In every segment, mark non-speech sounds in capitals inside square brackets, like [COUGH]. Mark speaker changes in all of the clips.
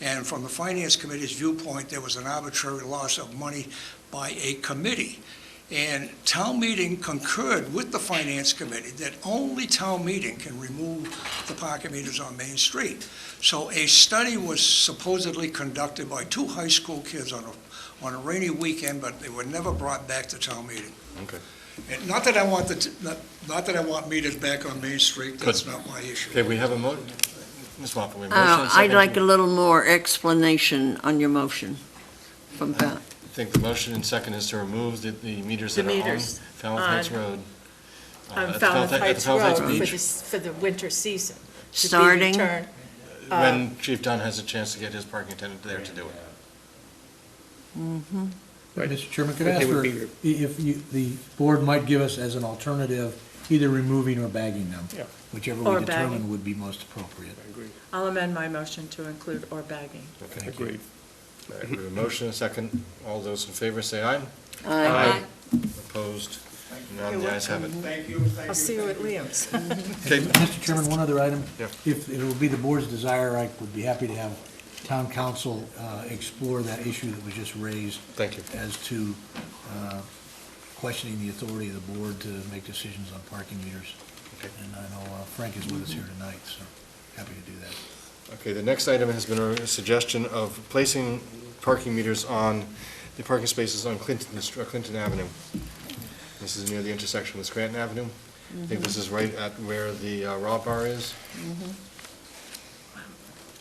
Speaker 1: And from the Finance Committee's viewpoint, there was an arbitrary loss of money by a committee. And town meeting concurred with the Finance Committee that only town meeting can remove the parking meters on Main Street. So a study was supposedly conducted by two high school kids on a, on a rainy weekend, but they were never brought back to town meeting.
Speaker 2: Okay.
Speaker 1: And not that I want the, t- not, not that I want meters back on Main Street, that's not my issue.
Speaker 2: Okay, we have a mo, Ms. Moffett, we have a motion.
Speaker 3: Uh,
Speaker 2: and
Speaker 3: I'd
Speaker 2: second.
Speaker 3: like a little more explanation on your motion from Val.
Speaker 2: I think the motion and second is to remove the, the meters
Speaker 4: The
Speaker 2: that are on
Speaker 4: meters
Speaker 2: Falmouth Heights
Speaker 4: on-
Speaker 2: Road. uh,
Speaker 4: on
Speaker 2: at the
Speaker 4: Falmouth
Speaker 2: Heights- at the
Speaker 4: Heights
Speaker 2: Falmouth
Speaker 4: Road
Speaker 2: Heights
Speaker 4: for
Speaker 2: Beach,
Speaker 4: the, s- for the winter season. to be
Speaker 3: Starting?
Speaker 4: returned. uh,
Speaker 2: When Chief Dunn has a chance to get his parking attendant there to do it.
Speaker 3: Mm-hmm.
Speaker 5: Right, Mr. Chairman, could
Speaker 6: But
Speaker 5: I
Speaker 6: they
Speaker 5: ask
Speaker 6: would
Speaker 5: for,
Speaker 6: be your-
Speaker 5: if you, the board might give us as an alternative, either removing or bagging them?
Speaker 6: Yeah.
Speaker 5: Whichever
Speaker 4: Or
Speaker 5: we
Speaker 4: bagging.
Speaker 5: determine would be most appropriate.
Speaker 4: I'll amend my motion to include or bagging.
Speaker 2: Okay.
Speaker 6: Agreed.
Speaker 2: All right, we have a motion and second. All those in favor say aye.
Speaker 3: Aye.
Speaker 2: Opposed? None, the ayes have it.
Speaker 4: I'll see you at
Speaker 2: [LAUGHS]
Speaker 4: Liam's.
Speaker 2: Okay,
Speaker 5: Mr. Chairman, one other item.
Speaker 2: Yeah.
Speaker 5: If it would be the board's desire, I would be happy to have town council uh, explore that issue that was just raised
Speaker 2: thank you.
Speaker 5: as to uh, questioning the authority of the board to make decisions on parking meters.
Speaker 2: Okay.
Speaker 5: And I know uh, Frank is with us here tonight, so happy to do that.
Speaker 2: Okay, the next item has been a suggestion of placing parking meters on the parking spaces on Clinton, uh, Clinton Avenue. This is near the intersection with Scranton Avenue. I think this is right at where the uh, Raw Bar is.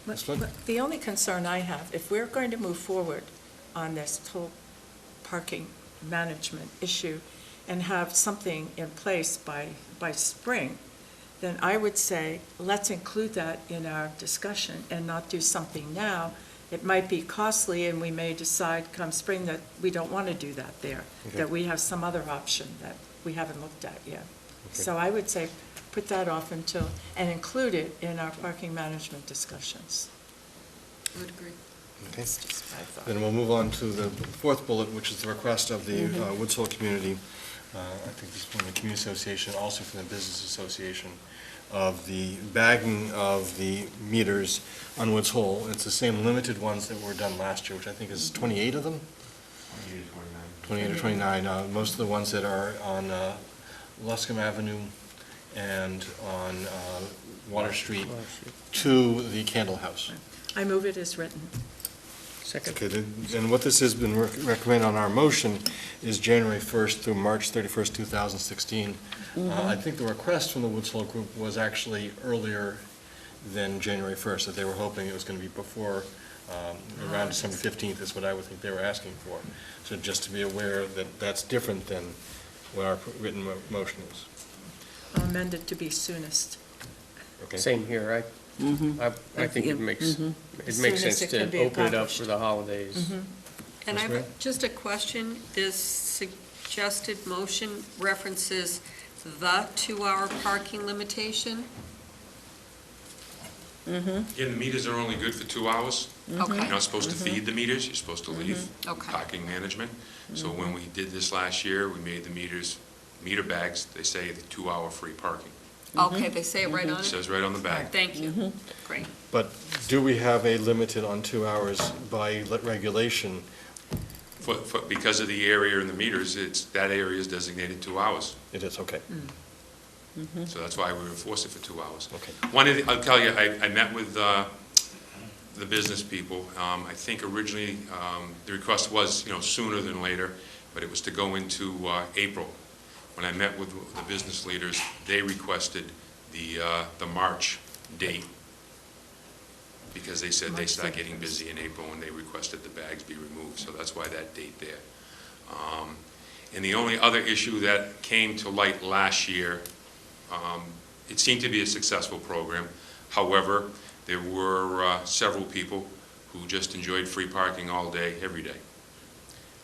Speaker 2: Ms. Flynn?
Speaker 4: The only concern I have, if we're going to move forward on this whole parking management issue and have something in place by, by spring, then I would say, let's include that in our discussion and not do something now. It might be costly, and we may decide come spring that we don't want to do that there, that
Speaker 2: Okay.
Speaker 4: we have some other option that we haven't looked at yet.
Speaker 2: Okay.
Speaker 4: So I would say, put that off until, and include it in our parking management discussions.
Speaker 7: Would agree.
Speaker 2: Okay.
Speaker 4: That's just my thought.
Speaker 2: Then we'll move on to the fourth bullet, which is the request of the uh, Woods Hole community, uh, I think this is from the Community Association, also from the Business Association, of the bagging of the meters on Woods Hole. It's the same limited ones that were done last year, which I think is 28 of them? 28 or 29, uh, most of the ones that are on uh, Luscombe Avenue and on uh, Water Street to the Candle House.
Speaker 4: I move it as written.
Speaker 6: Second.
Speaker 2: Okay, then- and what this has been rec- recommended on our motion is January 1st through March 31st, 2016.
Speaker 6: Mm-hmm.
Speaker 2: Uh, I think the request from the Woods Hole Group was actually earlier than January 1st, that they were hoping it was going to be before, um, around December 15th is what I would think they were asking for. So just to be aware that that's different than what our written mo- motion is.
Speaker 4: I'll amend it to be soonest.
Speaker 2: Okay?
Speaker 6: Same here,
Speaker 4: Mm-hmm.
Speaker 6: I, I, I think it makes, it
Speaker 4: As
Speaker 6: makes
Speaker 4: soon as mm-hmm.
Speaker 6: sense
Speaker 4: it
Speaker 6: to
Speaker 4: can be
Speaker 6: open it up
Speaker 4: accomplished. Mm-hmm.
Speaker 6: for the holidays.
Speaker 7: And I,
Speaker 2: Ms. Ray?
Speaker 7: have just a question, this suggested motion references the two-hour parking limitation?
Speaker 8: Again, the meters are only good for two hours.
Speaker 7: Okay,
Speaker 8: You're not supposed to feed the meters, you're supposed to leave
Speaker 7: okay,
Speaker 8: parking management. So when we did this last year, we made the meters, meter bags, they say the two-hour free parking.
Speaker 7: okay, they say it right on
Speaker 8: It
Speaker 7: it?
Speaker 8: says right on the back.
Speaker 7: Thank you, great.
Speaker 2: But do we have a limit on two hours by le- regulation?
Speaker 8: For, for, because of the area and the meters, it's, that area is designated two hours.
Speaker 2: It is, okay.
Speaker 8: So that's why we enforce it for two hours.
Speaker 2: Okay.
Speaker 8: One of the, I'll tell you, I, I met with, uh, the business people. Um, I think originally, um, the request was, you know, sooner than later, but it was to go into, uh, April. When I met with the business leaders, they requested the, uh, the March date because they said they
Speaker 4: March
Speaker 8: start getting
Speaker 4: 31st.
Speaker 8: busy in April and they requested the bags be removed, so that's why that date there. Um, And the only other issue that came to light last year, um, it seemed to be a successful program. However, there were uh, several people who just enjoyed free parking all day, every day.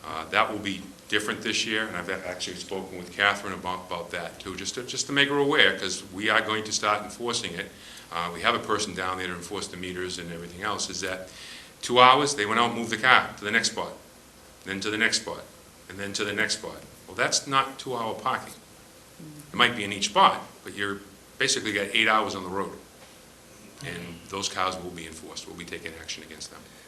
Speaker 8: Uh, That will be different this year, and I've actually spoken with Catherine about, about that too, just to, just to make her aware, because we are going to start enforcing it. Uh, We have a person down there to enforce the meters and everything else, is that two hours, they went out, moved the car to the next spot, then to the next spot, and then to the next spot. Well, that's not two-hour parking. It might be in each spot, but you're, basically got eight hours on the road. and those cows will be enforced, we'll be taking action against them.